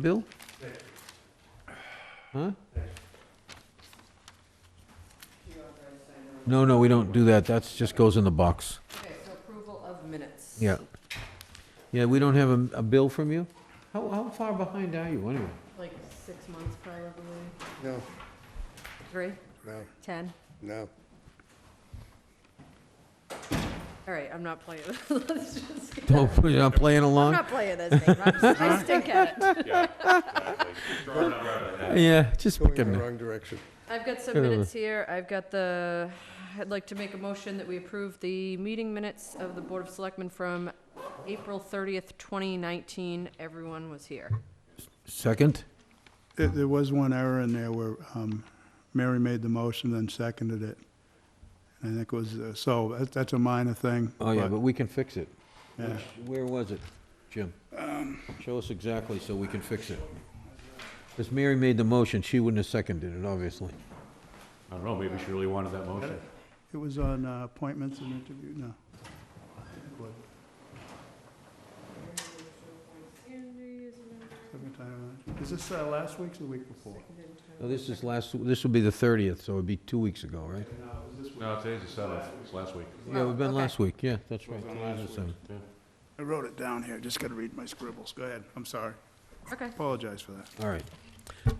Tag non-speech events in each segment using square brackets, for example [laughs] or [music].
Bill? Huh? No, no, we don't do that. That's just goes in the box. Okay, so approval of minutes. Yeah. Yeah, we don't have a, a bill from you? How, how far behind are you anyway? Like six months probably, No, three, no, 10? no. All right, I'm not playing. [laughs] Let's [laughs] just get Don't, that. you're not playing I'm along? not playing this game. I'm just I stink at it. Yeah, just Going in picking. the it. wrong direction. I've got some Get over. minutes here. I've got the, I'd like to make a motion that we approve the meeting minutes of the Board of Selectmen from April 30th, 2019. Everyone was here. Second? There, there was one error in there where, um, Mary made the motion, then seconded it. And I think it was, uh, so, that, that's a minor thing. Oh, yeah, but we can fix it. Yeah. Where was it, Jim? Um. Show us exactly so we can fix it. Because Mary made the motion, she wouldn't have seconded it, obviously. I don't know, maybe she really wanted that motion. It was on uh, appointments and interview, no. It wasn't. Second time around. Is this, uh, last week's or the week before? Now, this is last, this will be the 30th, so it'd be two weeks ago, right? No, it was this No, today's the seventh, it's last week. Yeah, Oh, we've been okay. last week, yeah, that's right. today's the seventh. I wrote it down here, just gotta read my scribbles, go ahead, I'm sorry, Okay. apologize for that. All right.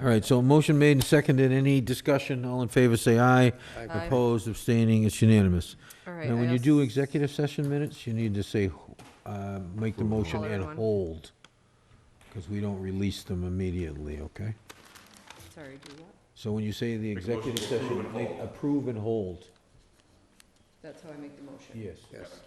All right, so motion made and seconded, any discussion, all in favor, say aye. Aye. Opposed, abstaining, it's unanimous. All right. Now, I when you als- do executive session minutes, you need to say, uh, make the motion Hold and everyone. hold, because we don't release them immediately, okay? Sorry, do what? So when you say the a motion executive to session, make- approve and hold. That's how I make the motion. Yes. Yes.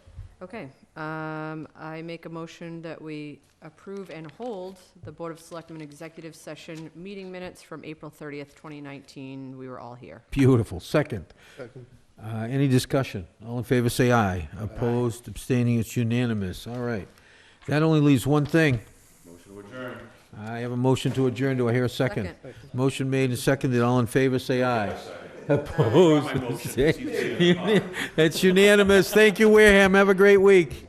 Okay, um, I make a motion that we approve and hold the Board of Selectmen Executive Session meeting minutes from April thirtieth, twenty nineteen. We were all here. Beautiful. Second. Second. Uh, Any discussion? All in favor, say aye. Opposed, abstaining, it's unanimous. All right. That only leaves one thing. Motion to adjourn. I have a motion to adjourn. Do I hear a second? Motion made and seconded. All in favor, say aye. [laughs] Opposed. abstaining. It's unanimous. Thank you, Wareham. Have a great week.